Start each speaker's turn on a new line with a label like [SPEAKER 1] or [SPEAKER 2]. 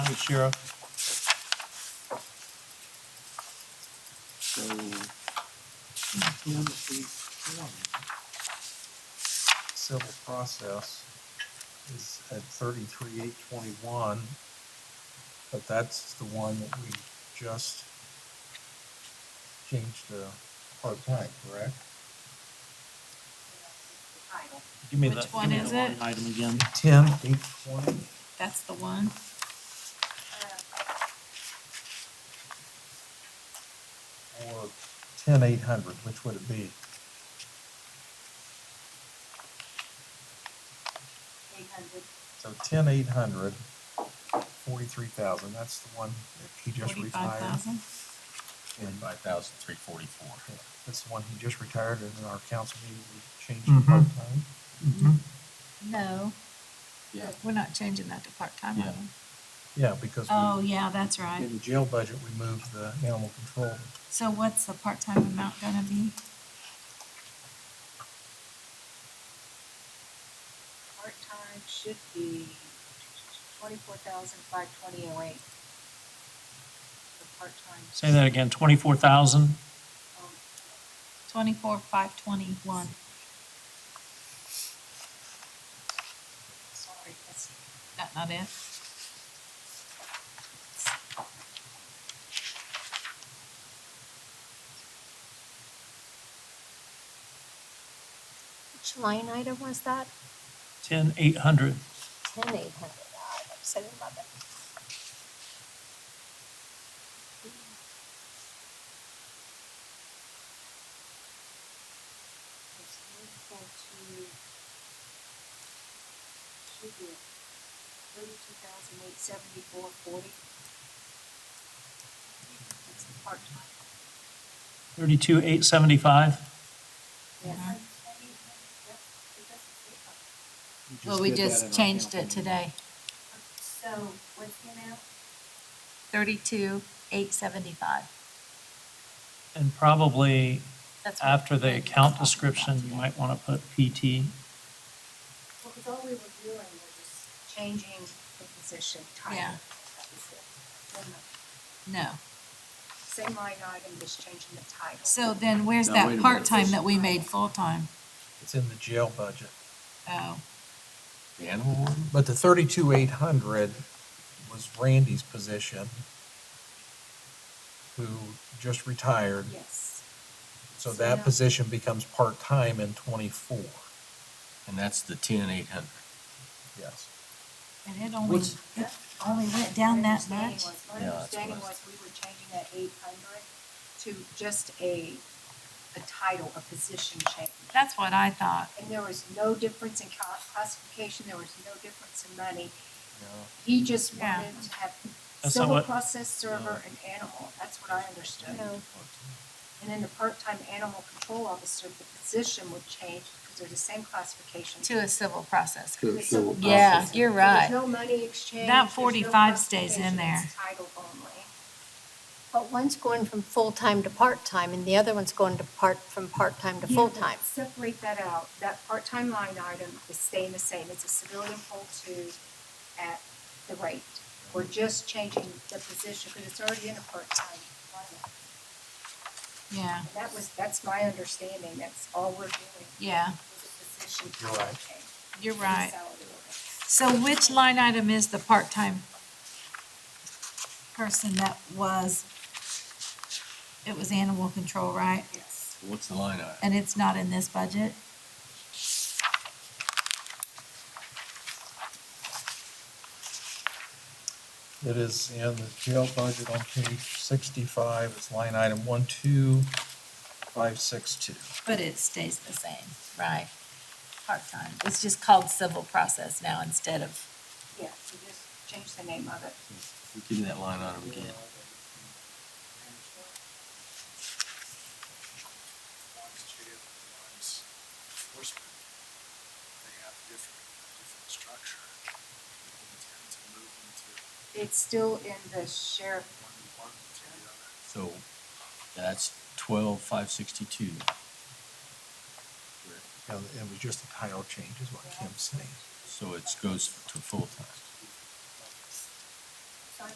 [SPEAKER 1] the sheriff.
[SPEAKER 2] So.
[SPEAKER 1] Civil process is at thirty-three eight twenty-one. But that's the one that we just changed to part-time, correct?
[SPEAKER 2] Give me
[SPEAKER 3] Which
[SPEAKER 2] that- give
[SPEAKER 3] one
[SPEAKER 2] me that
[SPEAKER 3] is it?
[SPEAKER 2] line Item again.
[SPEAKER 1] Ten eight twenty.
[SPEAKER 3] That's the one.
[SPEAKER 1] or ten eight hundred, which would it be? So ten eight hundred, forty-three thousand, that's the one that he just
[SPEAKER 3] Forty-five
[SPEAKER 1] retired.
[SPEAKER 3] thousand.
[SPEAKER 1] And
[SPEAKER 4] Five thousand three forty-four.
[SPEAKER 1] that's the one he just retired and in our council meeting, we changed
[SPEAKER 2] Mhm.
[SPEAKER 1] it part-time.
[SPEAKER 2] Mm-hmm.
[SPEAKER 3] No,
[SPEAKER 4] Yeah.
[SPEAKER 3] we're not changing that to part-time. are
[SPEAKER 4] Yeah.
[SPEAKER 3] we?
[SPEAKER 1] Yeah, because
[SPEAKER 3] Oh,
[SPEAKER 1] we,
[SPEAKER 3] yeah, that's right.
[SPEAKER 1] in the jail budget, we moved the animal control.
[SPEAKER 3] So what's the part-time amount gonna be?
[SPEAKER 5] Part-time should be twenty-four thousand five twenty oh eight. The part-time.
[SPEAKER 2] Say that again, twenty-four thousand?
[SPEAKER 5] um,
[SPEAKER 3] Twenty-four, five, twenty-one.
[SPEAKER 5] Sorry, that's,
[SPEAKER 3] That not it?
[SPEAKER 6] Which line item was that?
[SPEAKER 2] Ten, eight hundred.
[SPEAKER 6] Ten eight hundred, I'm upset about that.
[SPEAKER 5] that's equal to. Should be thirty-two thousand eight seventy-four forty. That's the part-time.
[SPEAKER 2] Thirty-two, eight seventy-five?
[SPEAKER 5] Yeah.
[SPEAKER 3] Mhm.
[SPEAKER 2] Well, we just changed it today.
[SPEAKER 5] So, what's the amount?
[SPEAKER 3] Thirty-two, eight seventy-five.
[SPEAKER 2] And probably
[SPEAKER 3] That's what
[SPEAKER 2] after the account description, you might want to put PT.
[SPEAKER 5] Well, because all we were doing was just changing the position title.
[SPEAKER 3] Yeah.
[SPEAKER 5] That was it. Then the
[SPEAKER 3] No.
[SPEAKER 5] Same line item, just changing the title.
[SPEAKER 3] So then where's
[SPEAKER 4] Now, wait a
[SPEAKER 3] that
[SPEAKER 4] minute.
[SPEAKER 3] part-time that we made full-time?
[SPEAKER 1] It's in the jail budget.
[SPEAKER 3] Oh,
[SPEAKER 4] The animal warden?
[SPEAKER 1] But the thirty-two eight hundred was Randy's position, who just retired.
[SPEAKER 5] Yes.
[SPEAKER 1] So
[SPEAKER 5] So
[SPEAKER 1] that
[SPEAKER 5] now-
[SPEAKER 1] position becomes part-time in twenty-four,
[SPEAKER 4] And that's the ten eight hundred.
[SPEAKER 1] yes.
[SPEAKER 3] and it only, it only went down that
[SPEAKER 5] My understanding
[SPEAKER 3] much?
[SPEAKER 5] was- My
[SPEAKER 4] Yeah, that's
[SPEAKER 5] understanding
[SPEAKER 4] what I-
[SPEAKER 5] was we were changing that eight hundred to just a, a title, a position change.
[SPEAKER 3] That's what I thought.
[SPEAKER 5] And there was no difference in cla- classification, there was no difference in money. He just
[SPEAKER 3] Yeah.
[SPEAKER 5] wanted to have
[SPEAKER 2] That's not
[SPEAKER 5] civil
[SPEAKER 2] what-
[SPEAKER 5] process server and animal, that's what I understood. And then the part-time animal control officer, the position would change because they're the same classification.
[SPEAKER 3] To a civil process.
[SPEAKER 5] The civil
[SPEAKER 3] Yeah,
[SPEAKER 5] process.
[SPEAKER 3] you're
[SPEAKER 5] So
[SPEAKER 3] right.
[SPEAKER 5] There's no money exchange.
[SPEAKER 3] That
[SPEAKER 5] there's no
[SPEAKER 3] 45 stays in
[SPEAKER 5] classification, it's Title only.
[SPEAKER 6] But one's going from full-time to part-time and the other one's going to part, from part-time to
[SPEAKER 5] Yeah,
[SPEAKER 6] full-time.
[SPEAKER 5] Separate that out. That part-time line item is staying the same. It's a civilian full two at the rate. We're just changing the position because it's already in a part-time line. item.
[SPEAKER 3] Yeah,
[SPEAKER 5] And that was, that's my understanding. That's all we're doing.
[SPEAKER 3] yeah,
[SPEAKER 5] is a position
[SPEAKER 1] You're
[SPEAKER 5] title
[SPEAKER 1] right.
[SPEAKER 5] change.
[SPEAKER 3] you're right.
[SPEAKER 5] Salary ordinance.
[SPEAKER 3] So which line item is the part-time person that was, it was animal control, right?
[SPEAKER 5] Yes.
[SPEAKER 4] What's the line item?
[SPEAKER 3] And it's not in this budget?
[SPEAKER 1] It is in the jail budget on page sixty-five, it's line item one, two, five, six, two.
[SPEAKER 3] But it stays the same, right? Part-time. It's just called civil process now instead of.
[SPEAKER 5] Yeah, we just changed the name of it.
[SPEAKER 4] Give me that line item
[SPEAKER 7] One's jail,
[SPEAKER 4] again.
[SPEAKER 7] one's enforcement. They have different, different structure. We intend to move them to
[SPEAKER 5] It's still in the sheriff
[SPEAKER 7] one, one to the other.
[SPEAKER 4] So that's twelve five sixty-two.
[SPEAKER 1] Now, It was just a title change is what Kim's saying.
[SPEAKER 4] So it goes to full-time.